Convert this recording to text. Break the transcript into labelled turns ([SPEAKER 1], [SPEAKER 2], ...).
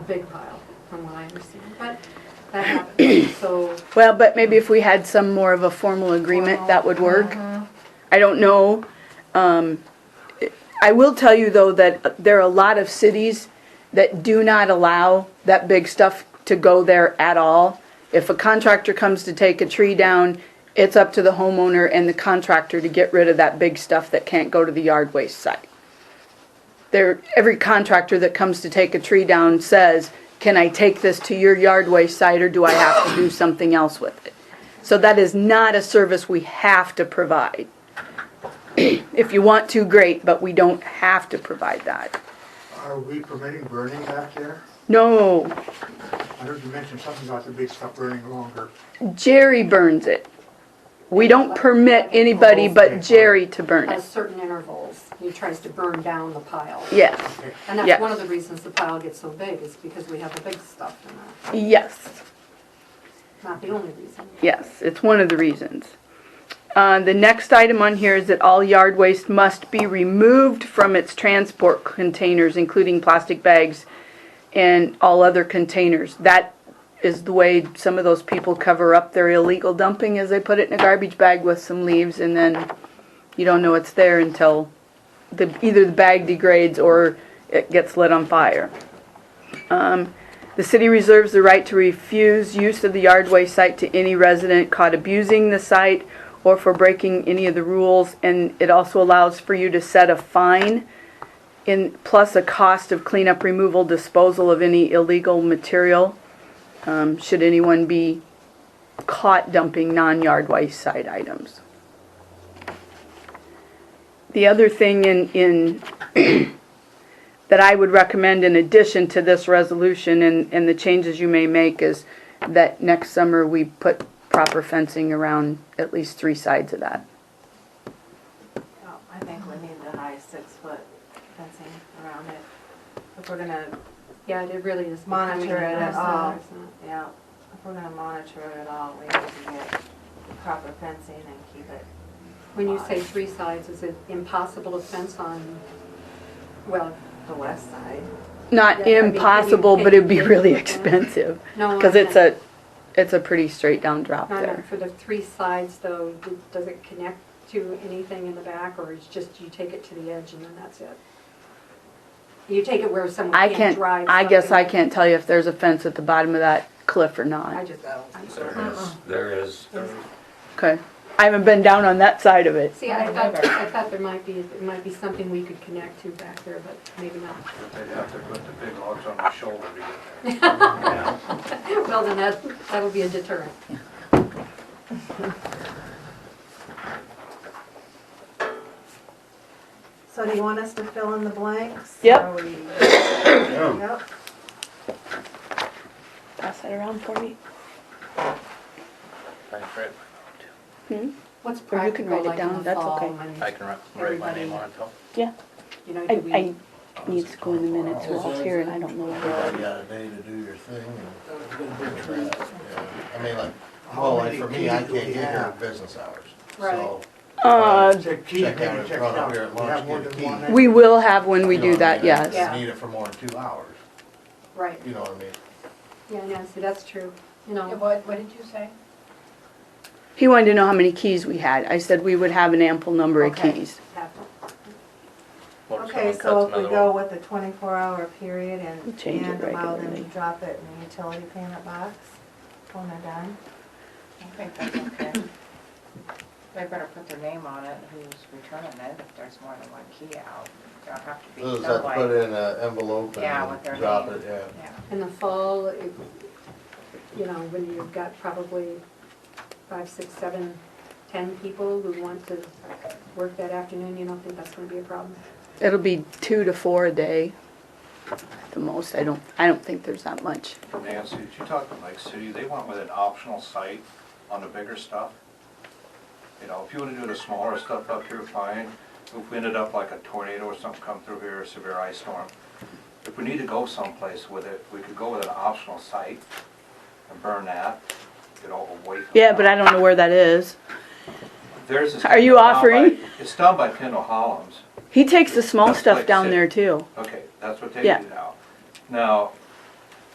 [SPEAKER 1] big pile, from what I understand, but that happened, so.
[SPEAKER 2] Well, but maybe if we had some more of a formal agreement, that would work. I don't know. Um, I will tell you though that there are a lot of cities that do not allow that big stuff to go there at all. If a contractor comes to take a tree down, it's up to the homeowner and the contractor to get rid of that big stuff that can't go to the yard waste site. There, every contractor that comes to take a tree down says, can I take this to your yard waste site or do I have to do something else with it? So that is not a service we have to provide. If you want to, great, but we don't have to provide that.
[SPEAKER 3] Are we permitting burning back there?
[SPEAKER 2] No,
[SPEAKER 3] I heard you mention something about the big stuff burning longer.
[SPEAKER 2] Jerry burns it. We don't permit anybody but Jerry to burn
[SPEAKER 1] At
[SPEAKER 2] it.
[SPEAKER 1] certain intervals, he tries to burn down the pile.
[SPEAKER 2] Yes,
[SPEAKER 1] And that's
[SPEAKER 2] yes.
[SPEAKER 1] one of the reasons the pile gets so big, is because we have the big stuff in there,
[SPEAKER 2] yes,
[SPEAKER 1] not the only reason.
[SPEAKER 2] yes, it's one of the reasons. Uh, the next item on here is that all yard waste must be removed from its transport containers, including plastic bags and all other containers. That is the way some of those people cover up their illegal dumping, is they put it in a garbage bag with some leaves and then you don't know it's there until the, either the bag degrades or it gets lit on fire. Um, The city reserves the right to refuse use of the yardway site to any resident caught abusing the site or for breaking any of the rules, and it also allows for you to set a fine in, plus a cost of cleanup, removal, disposal of any illegal material, um, should anyone be caught dumping non-yardway site items. The other thing in, in, that I would recommend in addition to this resolution and, and the changes you may make is that next summer we put proper fencing around at least three sides of that.
[SPEAKER 4] Oh, I think we need the high six-foot fencing around it. If we're gonna,
[SPEAKER 1] Yeah, it really is.
[SPEAKER 4] Monitor it at all.
[SPEAKER 1] It's not-
[SPEAKER 4] yeah, if we're gonna monitor it at all, we need to get proper fencing and keep it.
[SPEAKER 1] When you say three sides, is it impossible to fence on, well,
[SPEAKER 4] The west
[SPEAKER 1] Yeah,
[SPEAKER 4] side.
[SPEAKER 1] I
[SPEAKER 2] Not
[SPEAKER 1] mean, it'd be-
[SPEAKER 2] impossible, but it'd be really expensive,
[SPEAKER 1] no.
[SPEAKER 2] cause it's
[SPEAKER 1] not-
[SPEAKER 2] a, it's a pretty straight down drop
[SPEAKER 1] not
[SPEAKER 2] there.
[SPEAKER 1] For the three sides though, d- does it connect to anything in the back or it's just you take it to the edge and then that's it? You take it where someone
[SPEAKER 2] I
[SPEAKER 1] can't
[SPEAKER 2] can't,
[SPEAKER 1] drive.
[SPEAKER 2] I guess I
[SPEAKER 1] something.
[SPEAKER 2] can't tell you if there's a fence at the bottom of that cliff or
[SPEAKER 1] I
[SPEAKER 2] not,
[SPEAKER 1] just, I'm sorry.
[SPEAKER 4] Uh-uh.
[SPEAKER 5] There is, there is.
[SPEAKER 2] okay? I haven't been down on that side of it.
[SPEAKER 1] See, I thought, I thought there might be, it might be something we could connect to back there, but maybe not.
[SPEAKER 6] They'd have to put the big logs on the shoulder to get there.
[SPEAKER 1] Well, then that, that'll be a deterrent.
[SPEAKER 4] So do you want us to fill in the blanks?
[SPEAKER 2] Yep.
[SPEAKER 4] Are we- Yep.
[SPEAKER 2] Pass that around for me. Hmm?
[SPEAKER 1] What's
[SPEAKER 2] Or you can
[SPEAKER 1] practical
[SPEAKER 2] write it
[SPEAKER 1] like in
[SPEAKER 2] down,
[SPEAKER 1] the
[SPEAKER 2] that's
[SPEAKER 1] fall
[SPEAKER 2] okay.
[SPEAKER 1] when,
[SPEAKER 5] I can write- write my name on it, though.
[SPEAKER 2] Yeah,
[SPEAKER 1] you know, do
[SPEAKER 2] I,
[SPEAKER 1] we?
[SPEAKER 2] I need to go in the minutes, we're all here and I don't know where they are.
[SPEAKER 7] Everybody got a day to do your thing and. Yeah, I mean, like,
[SPEAKER 3] How
[SPEAKER 7] well, like
[SPEAKER 3] many
[SPEAKER 7] for me, I
[SPEAKER 3] keys do we
[SPEAKER 7] can't get here
[SPEAKER 3] have?
[SPEAKER 7] at business hours,
[SPEAKER 1] Right.
[SPEAKER 7] so.
[SPEAKER 2] Uh,
[SPEAKER 3] Check keys,
[SPEAKER 7] Check
[SPEAKER 3] maybe
[SPEAKER 7] out in
[SPEAKER 3] check it
[SPEAKER 7] front
[SPEAKER 3] out.
[SPEAKER 7] of here at
[SPEAKER 3] We have
[SPEAKER 7] lunch,
[SPEAKER 3] more
[SPEAKER 7] get a
[SPEAKER 3] than
[SPEAKER 7] key.
[SPEAKER 3] one there.
[SPEAKER 2] We will have when we
[SPEAKER 7] You
[SPEAKER 2] do
[SPEAKER 7] know what I
[SPEAKER 2] that,
[SPEAKER 7] mean? I just
[SPEAKER 2] yes.
[SPEAKER 1] Yeah.
[SPEAKER 7] Need it for more than two hours,
[SPEAKER 1] Right,
[SPEAKER 7] you know what I mean?
[SPEAKER 1] yeah, yeah, see, that's true, you know.
[SPEAKER 4] What, what did you say?
[SPEAKER 2] He wanted to know how many keys we had. I said we would have an ample number of
[SPEAKER 1] Okay.
[SPEAKER 2] keys.
[SPEAKER 1] have to-
[SPEAKER 5] Or if
[SPEAKER 4] Okay,
[SPEAKER 5] someone
[SPEAKER 4] so
[SPEAKER 5] cuts
[SPEAKER 4] if we
[SPEAKER 5] another
[SPEAKER 4] go
[SPEAKER 5] one.
[SPEAKER 4] with the twenty-four hour period and,
[SPEAKER 2] Change it
[SPEAKER 4] and allow them to
[SPEAKER 2] regularly.
[SPEAKER 4] drop it in the utility payment box when they're done?
[SPEAKER 8] I think that's okay. They better put their name on it, who's returning it, if there's more than one key out. There'll have to be
[SPEAKER 7] Those that
[SPEAKER 8] nobody.
[SPEAKER 7] put it in an envelope
[SPEAKER 8] Yeah, with their
[SPEAKER 7] and drop
[SPEAKER 8] name.
[SPEAKER 7] it, yeah.
[SPEAKER 8] Yeah.
[SPEAKER 1] In the fall, it- you know, when you've got probably five, six, seven, ten people who want to work that afternoon, you don't think that's gonna be a problem?
[SPEAKER 2] It'll be two to four a day. at The most, I don't, I don't think there's that much.
[SPEAKER 6] Nancy, did you talk to Lake City? They went with an optional site on the bigger stuff. You know, if you wanna do the smaller stuff up here, fine. If we ended up like a tornado or something come through here, a severe ice storm, if we need to go someplace with it, we could go with an optional site and burn that, get all away from.
[SPEAKER 2] Yeah, but I don't know where that is.
[SPEAKER 6] There's this.
[SPEAKER 2] Are you offering?
[SPEAKER 6] It's down by Kendall Hollums.
[SPEAKER 2] He takes the small
[SPEAKER 6] That's
[SPEAKER 2] stuff
[SPEAKER 6] like
[SPEAKER 2] down
[SPEAKER 6] six.
[SPEAKER 2] there too.
[SPEAKER 6] Okay, that's what they
[SPEAKER 2] Yeah.
[SPEAKER 6] do now. Now,